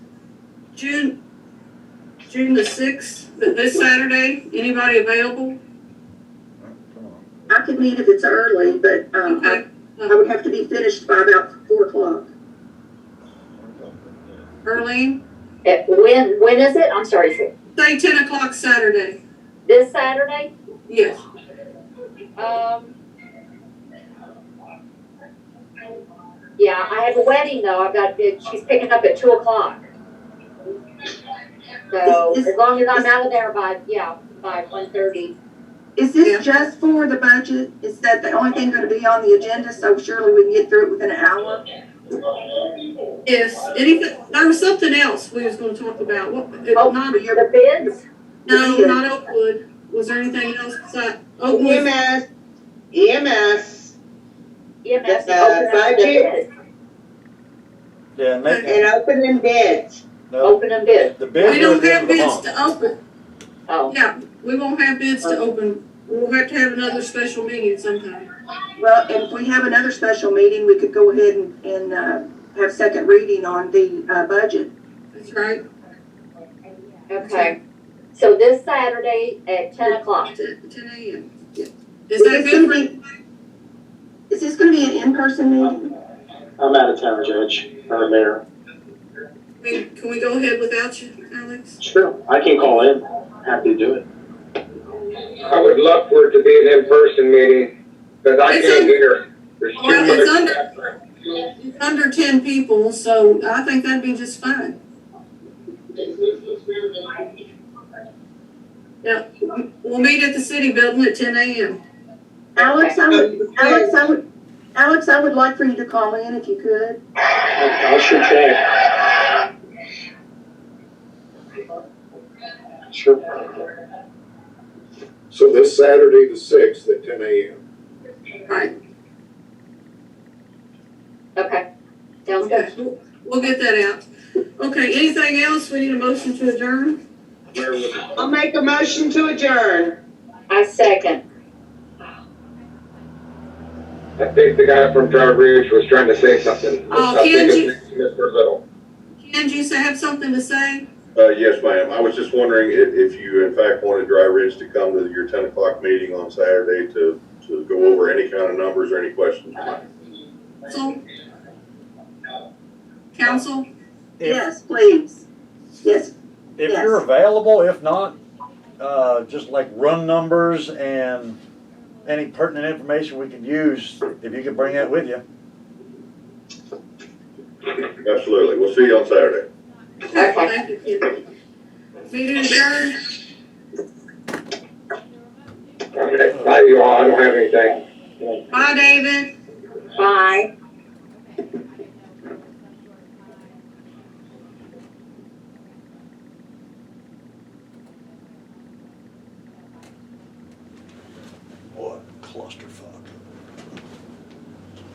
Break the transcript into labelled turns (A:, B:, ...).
A: June, June the sixth, this Saturday, anybody available?
B: Come on.
C: I could meet if it's early, but, um, I, I would have to be finished by about four o'clock.
A: Early,
D: Uh, When, when is it? I'm sorry, is it
A: say ten o'clock Saturday,
D: this Saturday?
A: yes.
D: Um. Yeah, I have a wedding though. I've got, it- she's picking up at two o'clock. So
C: Is-
D: as
C: is-
D: long as I'm
C: is-
D: out of there by, yeah, by one thirty.
C: Is
A: Yeah.
C: this just for the budget? Is that the only thing gonna be on the agenda, so surely we can get through it within an hour?
A: Yes, anything, there was something else we was gonna talk about, what, it-
D: Oh.
A: not,
C: For your,
D: The bids?
A: no, not Oakwood, was there anything else besides Oakwood?
E: EMS, EMS,
D: EMS
E: The-
D: opening
E: the
D: up the
E: budget?
D: bids.
B: Yeah, and they,
E: and open them bids.
B: no,
D: Open them bids.
B: the
A: oh, We
B: bid
A: don't
B: was in
A: have
B: the
A: bids
B: month.
A: to open,
D: Oh,
A: yeah, we won't have bids to open, we'll have to have another special meeting sometime.
C: well, if we have another special meeting, we could go ahead and, and, uh, have second reading on the, uh, budget.
A: That's right,
D: okay. So this Saturday at ten o'clock.
A: ten, ten AM, yeah. Is that
C: Is this gonna
A: good
C: be- Is this gonna be an in-person meeting?
F: I'm out of town, Judge, or Mayor.
A: for, we- can we go ahead without you, Alex?
F: Sure. I can call in, happy to do it.
G: I would love for it to be an in-person meeting, but I
A: It's
G: can't
A: in-
G: hear. There's too
A: Well, it's
G: much-
A: under- It's Under ten people, so I think that'd be just fine. Yeah, we'll meet at the city building at ten AM.
C: Alex, I would, Alex,
E: Okay.
C: I would, Alex, I would like for you to call in if you could.
F: I'll sure try. Sure.
H: So this Saturday, the sixth, at ten AM.
A: Right,
D: Okay. Sounds
A: okay,
D: good.
A: we'll- we'll get that out. Okay, anything else? We need a motion to adjourn?
G: Mayor, with the-
E: I'll make a motion to adjourn.
D: I second.
G: I think the guy from Dry Ridge was trying to say something.
A: Oh,
G: I think
A: Kenji.
G: it's Mr. Little.
A: Ken, do you have something to say?
H: Uh, yes, ma'am. I was just wondering if, if you in fact wanted Dry Ridge to come to your ten o'clock meeting on Saturday to, to go over any kind of numbers or any questions.
A: Council? Council?
B: If,
C: Yes, please. Yes,
B: if
C: yes.
B: you're available, if not, uh, just like run numbers and any pertinent information we could use, if you could bring that with you.
H: Absolutely. We'll see you on Saturday.
A: Okay, Thank you, Ken. Meeting adjourned?
G: Okay, Bye, you all, I don't have anything.
A: Bye, David.
D: Bye.
B: What clusterfuck.